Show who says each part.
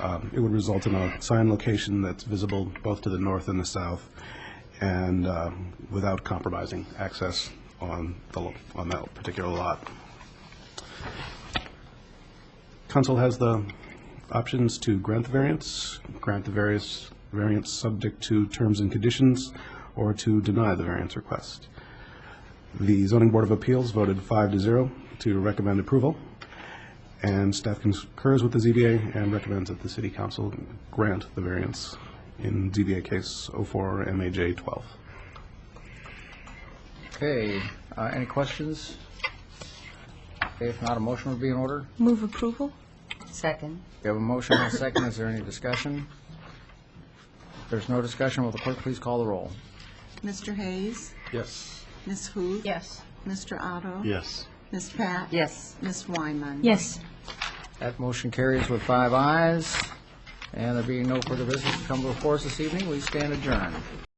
Speaker 1: um, it would result in a sign location that's visible both to the north and the south, and um, without compromising access on the, lo- on that particular lot. Council has the options to grant the variance, grant the various variance subject to terms and conditions, or to deny the variance request. The zoning board of appeals voted five to zero to recommend approval, and staff concurs with the ZBA and recommends that the city council grant the variance in ZBA case 04 MAJ 12.
Speaker 2: Okay, uh, any questions? Okay, if not, a motion would be in order.
Speaker 3: Move approval?
Speaker 4: Second.
Speaker 2: We have a motion and a second. Is there any discussion? If there's no discussion, will the clerk please call the roll?
Speaker 5: Mr. Hayes?
Speaker 1: Yes.
Speaker 5: Ms. Huth?
Speaker 3: Yes.
Speaker 5: Mr. Otto?
Speaker 1: Yes.
Speaker 5: Ms. Pat?
Speaker 4: Yes.
Speaker 5: Ms. Wyman?
Speaker 3: Yes.
Speaker 2: That motion carries with five ayes, and there being no further business to come before us this evening, we stand adjourned.